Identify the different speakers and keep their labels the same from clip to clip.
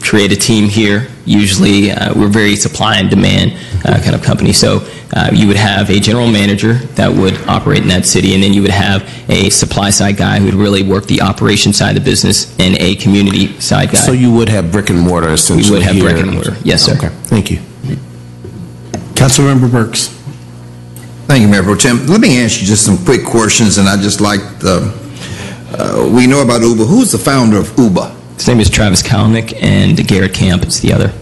Speaker 1: create a team here. Usually, uh, we're very supply and demand uh, kind of company. So uh, you would have a general manager that would operate in that city, and then you would have a supply side guy who would really work the operation side of the business and a community side guy.
Speaker 2: So you would have brick and mortar essentially
Speaker 1: We would have brick
Speaker 2: here.
Speaker 1: and mortar. Yes, sir.
Speaker 2: Okay, thank you.
Speaker 3: Councilmember Burks.
Speaker 4: Thank you, Mayor Pro Tem. Let me ask you just some quick questions, and I just like the, uh, we know about Uber. Who's the founder of Uber?
Speaker 1: His name is Travis Kalanick, and Garrett Camp is the other.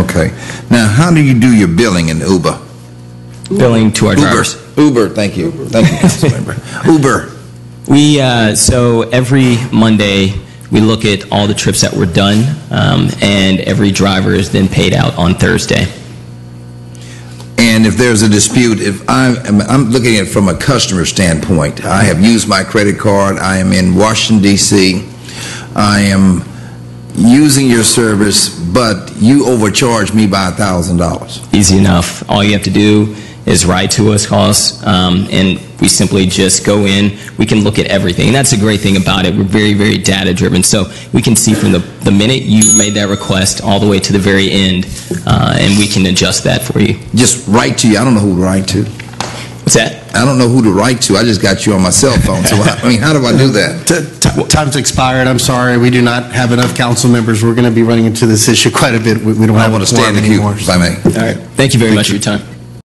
Speaker 4: Okay. Now, how do you do your billing in Uber?
Speaker 1: Billing to our
Speaker 4: Uber.
Speaker 1: drivers.
Speaker 4: Uber, thank you. Thank you, Councilmember. Uber.
Speaker 1: We, uh, so every Monday, we look at all the trips that were done, um, and every driver is then paid out on Thursday.
Speaker 4: And if there's a dispute, if I'm, I'm- I'm looking at it from a customer standpoint, I have used my credit card, I am in Washington DC, I am using your service, but you overcharge me by a thousand dollars.
Speaker 1: Easy enough. All you have to do is write to us, call us, um, and we simply just go in. We can look at everything. And that's the great thing about it. We're very, very data driven. So we can see from the, the minute you made that request all the way to the very end, uh, and we can adjust that for you.
Speaker 4: Just write to you, I don't know who to write to.
Speaker 1: What's that?
Speaker 4: I don't know who to write to. I just got you on my cell phone. So, I, I mean, how do I do that?
Speaker 3: T- t- Time's expired, I'm sorry, we do not have enough council members, we're going to be running into this issue quite a bit, we we don't
Speaker 4: I
Speaker 3: have
Speaker 4: want
Speaker 3: a
Speaker 4: to stay in
Speaker 3: quorum
Speaker 4: the queue,
Speaker 3: anymore.
Speaker 4: if I may.
Speaker 1: All right. Thank you very much for your time.